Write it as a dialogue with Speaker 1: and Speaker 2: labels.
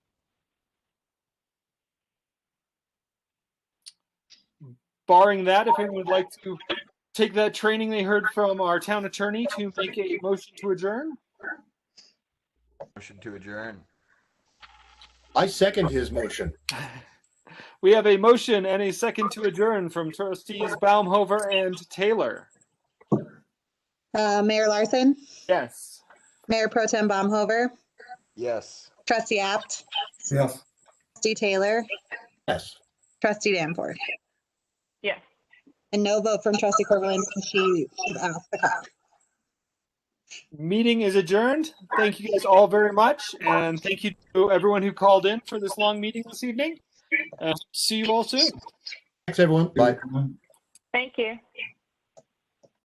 Speaker 1: barring that, if anyone would like to take that training they heard from our town attorney to make a motion to adjourn.
Speaker 2: Motion to adjourn.
Speaker 3: I second his motion.
Speaker 1: We have a motion and a second to adjourn from trustees Baumhover and Taylor.
Speaker 4: Uh, Mayor Larson,
Speaker 1: Yes.
Speaker 4: Mayor Pro Tem Baumhover,
Speaker 2: Yes.
Speaker 4: Trustee Apt,
Speaker 5: Yes.
Speaker 4: Trustee Taylor,
Speaker 3: Yes.
Speaker 4: Trustee Danforth.
Speaker 6: Yes.
Speaker 4: And no vote from Trustee Corvallin, since she was off the call.
Speaker 1: Meeting is adjourned. Thank you guys all very much. And thank you to everyone who called in for this long meeting this evening. Uh, see you all soon.
Speaker 3: Thanks, everyone. Bye.
Speaker 6: Thank you.